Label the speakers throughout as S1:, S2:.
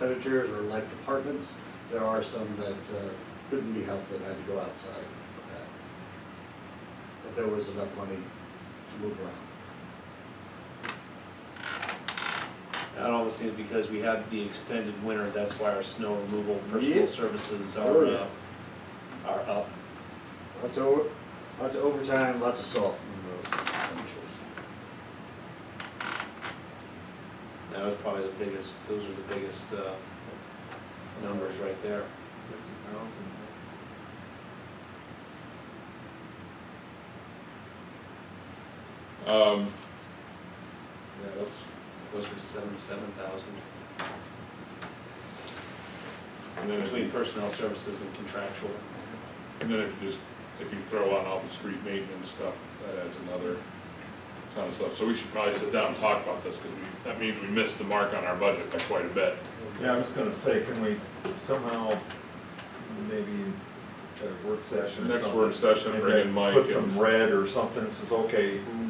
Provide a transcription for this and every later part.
S1: expenditures or like departments, there are some that uh, couldn't be helped that had to go outside of that. But there was enough money to move around.
S2: That obviously is because we have the extended winter, that's why our snow removal personal
S1: Yep.
S2: services
S1: Oh,
S2: are,
S1: yeah.
S2: uh, are up.
S1: Lots of, over- lots of overtime, lots of salt in those expenditures.
S2: That was probably the biggest, those are the biggest, uh, numbers right there.
S3: Fifty thousand.
S4: Um, yeah, that's,
S2: Closer to seventy-seven thousand
S4: and then if
S2: between
S4: you,
S2: personnel services and contractual.
S4: and then if you just, if you throw on all the street maintenance stuff, that adds another ton of stuff. So we should probably sit down and talk about this, cause we, that means we missed the mark on our budget by quite a bit.
S3: Yeah, I was gonna say, can we somehow, maybe at a work session or
S4: Next
S3: something,
S4: work session,
S3: and
S4: bring in
S3: then
S4: Mike
S3: Put
S4: and-
S3: some red or something, that says, okay, who,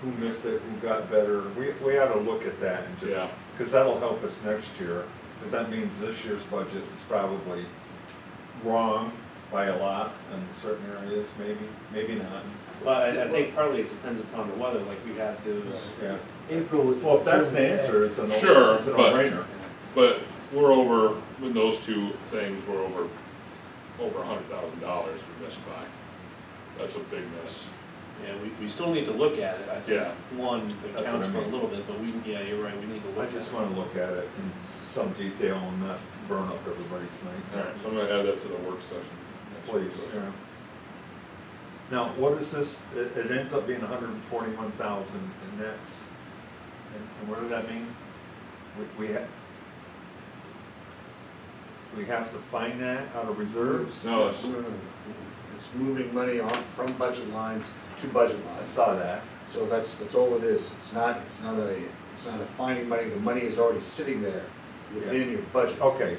S3: who missed it, who got better, we, we ought to look at that and just.
S4: Yeah.
S3: Cause that'll help us next year, cause that means this year's budget is probably wrong by a lot in certain areas, maybe, maybe not,
S2: Well, I, I think partly it depends upon the weather, like we had those,
S3: yeah.
S5: April was.
S3: Well, if that's the answer, it's a no,
S4: Sure,
S3: it's a
S4: but-
S3: no-brainer.
S4: But we're over, with those two things, we're over, over a hundred thousand dollars we missed by. That's a big miss.
S2: yeah, we, we still need to look at it, I think.
S4: Yeah.
S2: One
S3: That's what
S2: accounts
S3: I
S2: for a
S3: mean.
S2: little bit, but we, yeah, you're right, we need to
S3: I
S2: look at
S3: just
S2: it.
S3: wanna look at it in some detail and not burn up everybody's night.
S4: Alright, so I'm gonna add that to the work session. next week.
S3: Please, yeah. Now, what is this, it, it ends up being hundred and forty-one thousand, and that's, and, and what does that mean? We, we have, we have to find that out of reserves?
S4: No, it's,
S1: No, no, no. Mm-hmm. It's moving money on, from budget lines to budget
S3: I
S1: lines.
S3: saw that,
S1: So that's, that's all it is. It's not, it's not a, it's not a finding money. The money is already sitting there within your budget.
S3: okay,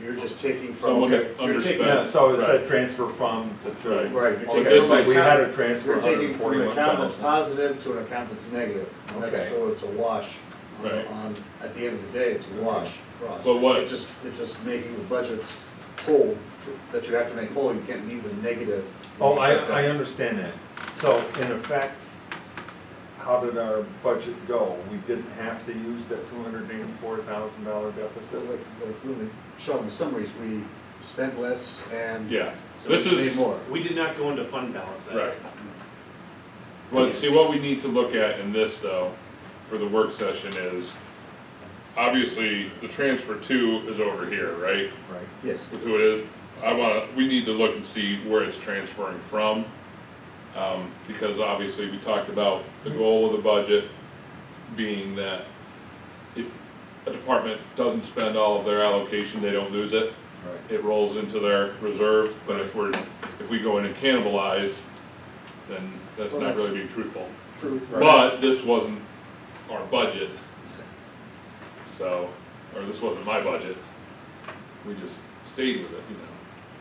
S1: You're just taking
S4: someone
S1: from,
S3: Okay.
S4: underspent.
S3: yeah, so it's
S4: Right.
S3: that transfer from to to.
S4: Right.
S1: right, you're
S4: Okay,
S1: taking
S4: so
S1: from.
S3: we had
S1: account-
S3: a transfer
S1: You're
S3: of
S1: taking from an account that's
S3: 141,000.
S1: positive to an account that's negative. And that's,
S3: Okay.
S1: so it's a wash. on-
S4: Right.
S1: On, at the end of the day, it's a wash across.
S4: But what-
S1: It's just, it's just making the budget whole, tr- that you have to make whole. You can't leave a negative. when
S3: Oh,
S1: you
S3: I,
S1: shut
S3: I
S1: down.
S3: understand that. So in effect, how did our budget go? We didn't have to use that two hundred eighty-four thousand dollar
S1: So
S3: deficit?
S1: like, like really showing the summaries, we spent less and
S4: Yeah,
S2: So
S4: this
S1: made
S4: is,
S1: more.
S2: We did not go into fund balance that.
S4: right. But see, what we need to look at in this though, for the work session is, obviously, the transfer two is over here, right?
S3: Right.
S1: Yes,
S4: with who it is, I wanna, we need to look and see where it's transferring from. Um, because obviously, we talked about the goal of the budget being that if a department doesn't spend all of their allocation, they don't lose it.
S3: Right.
S4: It rolls into their reserve, but if we're, if we go in and cannibalize, then that's
S1: Well,
S4: not
S1: that's-
S4: really being truthful.
S1: true.
S3: Right.
S4: But this wasn't our budget, so, or this wasn't my budget. We just stayed with it, you know,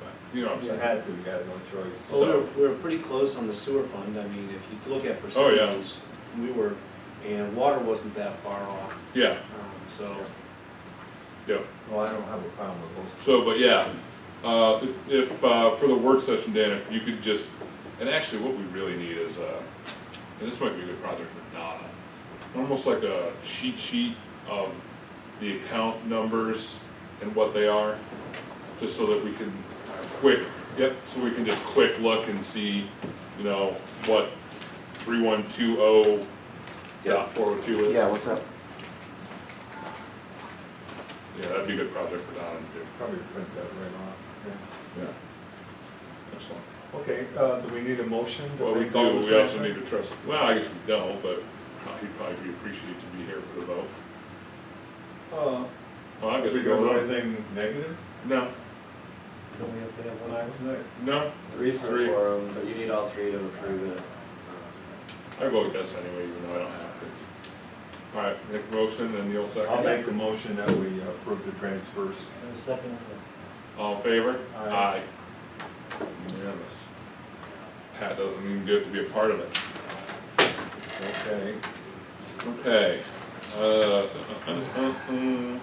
S4: but, you know what I'm
S3: You
S4: saying?
S3: had to, you had no choice.
S2: Well, we
S4: So-
S2: were, we were pretty close on the sewer fund, I mean, if you look at
S4: Oh, yeah.
S2: percentages, we were, and water wasn't that far off,
S4: Yeah,
S2: um, so.
S4: yeah,
S3: Well, I don't have a problem with those.
S4: so, but yeah, uh, if, if, uh, for the work session, Dan, if you could just, and actually what we really need is, uh, and this might be a good project for Donna, almost like a cheat sheet of the account numbers and what they are, just so that we can quick, yep, so we can just quick look and see, you know, what three one two oh dot four oh two is. Yeah,
S5: what's up?
S4: that'd be a good project for Donna to do.
S3: Probably print that right off, yeah.
S4: Yeah. Excellent.
S3: Okay, uh, do we need a motion? to
S4: Well, we
S3: make all
S4: do,
S3: this
S4: we also
S3: happen?
S4: need to trust, well, I guess we don't, but he'd probably be appreciated to be here for the vote.
S3: Uh,
S4: Well, I
S3: did
S4: guess
S3: we
S4: we
S3: go to
S4: don't.
S3: anything negative?
S4: No,
S5: Don't we have to have one?
S3: was next?
S4: no,
S6: Three
S4: Three.
S6: for quorum, but you need all three to approve it.
S4: I vote yes anyway, even though I don't have to. All right, make a motion and Neil second.
S3: I'll make the motion that we approve the transfers.
S5: And a second.
S4: All in favor?
S3: Aye.
S4: Unanimous. Pat doesn't even get to be a part of it.
S3: Okay.
S4: Okay. Uh, uh, uh, uh, uh, uh.